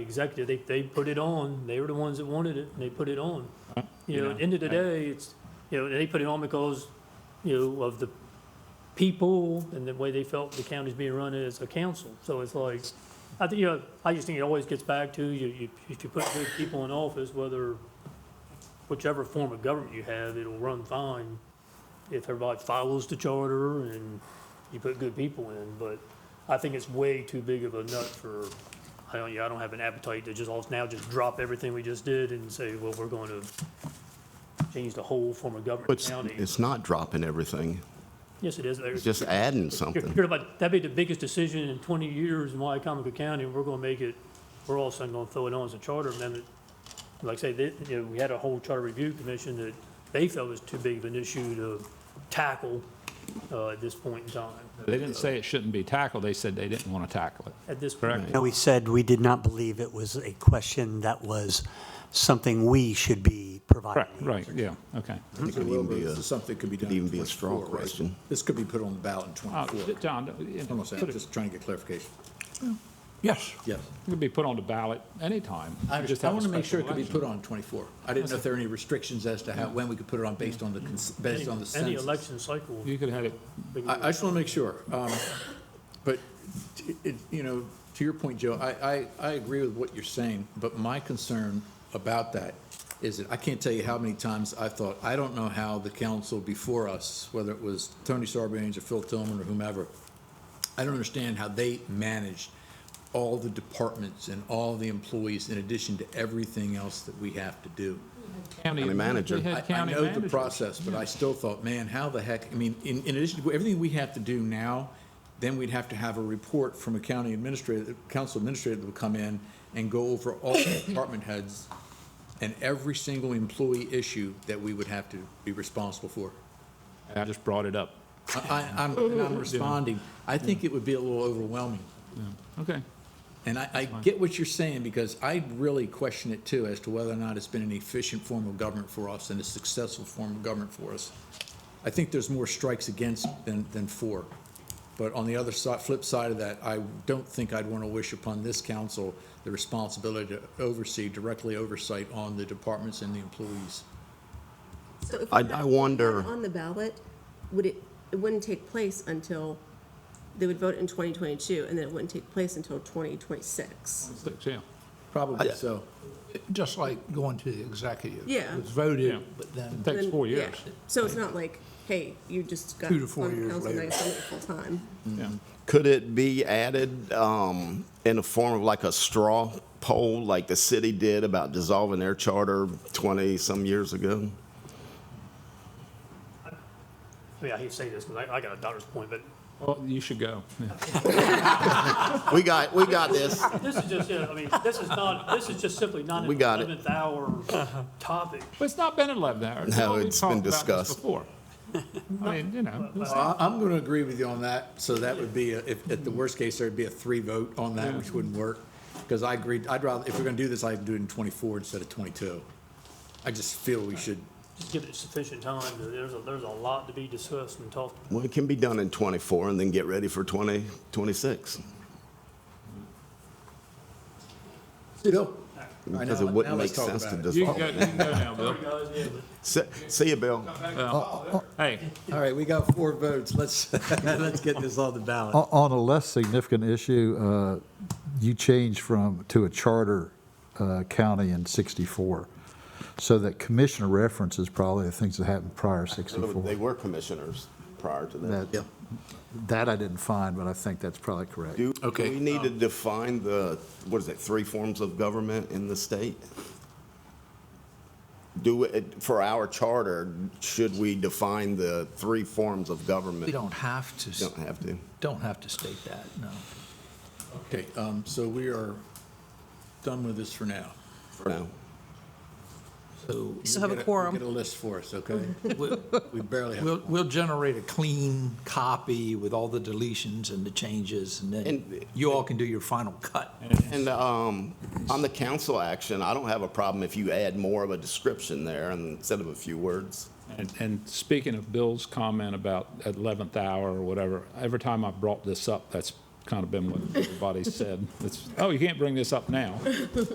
executive, they, they put it on, they were the ones that wanted it, and they put it on. You know, at the end of the day, it's, you know, they put it on because, you know, of the people and the way they felt the county's being run as a council. So it's like, I think, you know, I just think it always gets back to you, you, if you put good people in office, whether, whichever form of government you have, it'll run fine if everybody follows the charter and you put good people in, but I think it's way too big of a nut for, I don't, yeah, I don't have an appetite to just all, now just drop everything we just did and say, well, we're going to change the whole form of government in the It's, county. it's not dropping everything, Yes, it is. it's just adding You're, something. you're about, that'd be the biggest decision in twenty years in Wycomico County, and we're gonna make it, we're all of a sudden gonna throw it on as a charter amendment. Like I say, they, you know, we had a whole charter review commission that they felt was too big of an issue to tackle, uh, at this point in time. They didn't say it shouldn't be tackled, they said they didn't want to tackle it. At this point. Correct. No, we said we did not believe it was a question that was something we should be providing. Correct, right, yeah, okay. It So could even Wilbur, be this a- is something that could be could done in even be a straw 24, right? question. This could be put on the ballot in Uh, 24. John, you know, I'm put it- just trying to get clarification. yes, it Yes. could be put on the ballot anytime. I Just understand. I have a want to make sure it special could be election. put on 24. I didn't know if there were any restrictions as to how, when we could put it on based on the, cons- based on the Any- Any census. election cycle. You could have it, I, I just want to make sure. um, But, t- it, you know, to your point, Joe, I, I, I agree with what you're saying, but my concern about that is that I can't tell you how many times I thought, I don't know how the council before us, whether it was Tony Sarbanes or Phil Tillman or whomever, I don't understand how they managed all the departments and all the employees in addition to everything else that we have to do. county manager. They had I- I county know the managers. process, but I still thought, man, how the heck, I mean, in, in addition to everything we have to do now, then we'd have to have a report from a county administrator, council administrator that would come in and go over all the department heads and every single employee issue that we would have to be responsible for. I just brought it up. I, I- I'm, and I'm responding. I think it would be a little overwhelming. Okay, And I, I get what you're saying, because I really question it too, as to whether or not it's been an efficient form of government for us and a successful form of government for us. I think there's more strikes against than, than for. But on the other side, flip side of that, I don't think I'd want to wish upon this council the responsibility to oversee, directly oversight on the departments and the employees. So if I- it I was wonder- On the ballot, would it, it wouldn't take place until, they would vote in 2022, and then it wouldn't take place until 2026. six, yeah. Probably so. Just like going to the executive. Yeah. It's Yeah. voted, but then, Takes Then- four yeah. years. So it's not like, hey, you just got. Two to four on years council, now later. you're doing it Full-time. Could it be added um, in the form of like a straw poll, like the city did about dissolving their charter 20-some years ago? I mean, I hate to say this, because I, I got a daughter's point, but Well, you should go. Yeah. We got, we got this. this is just, it. I mean, this is not, this is just simply not We an got it. eleventh hour topic. But it's not been 11 hours. No, Well, we've it's been talked about this discussed. Before. I mean, you know, it's- I, I'm going to agree with you on that, so that would be, a- if, at the worst case, there'd be a three vote on that, which wouldn't work. Because I agreed, I'd rather, if we're going to do this, I'd do it in twenty-four instead of twenty-two. I just feel we should, Just give it sufficient time, to- there's, a- there's a lot to be discussed and talked Well, it can be done in 24 and then get ready for 2026. you know. All right, Because it now- now wouldn't make let's talk sense to about it. you can dissolve. go, you can go now, Bill. See see you, Bill. Hey, All right, we got four votes, let's, let's get this on the ballot. On on a less significant issue, uh, you changed from, to a charter uh, county in 64. So that commissioner references probably the things that happened prior to They 64. were commissioners prior to that. That, that I didn't find, but I think that's probably correct. Do do Okay. we need to define the, what is it, three forms of government in the state? Do, it for our charter, should we define the three forms of government? we don't have to, s- Don't have to. don't have to state that, no. Okay, um, so we are done with this for now. for now. So Still have We'll a get quorum. We'll get a list for us, okay? We barely have. we'll, we'll generate a clean copy with all the deletions and the changes, and then And- you all can do your final cut. And um, on the council action, I don't have a problem if you add more of a description there instead of a few words. And, and speaking of Bill's comment about 11th hour or whatever, every time I've brought this up, that's kind of been what everybody said. It's, oh, you can't bring this up now.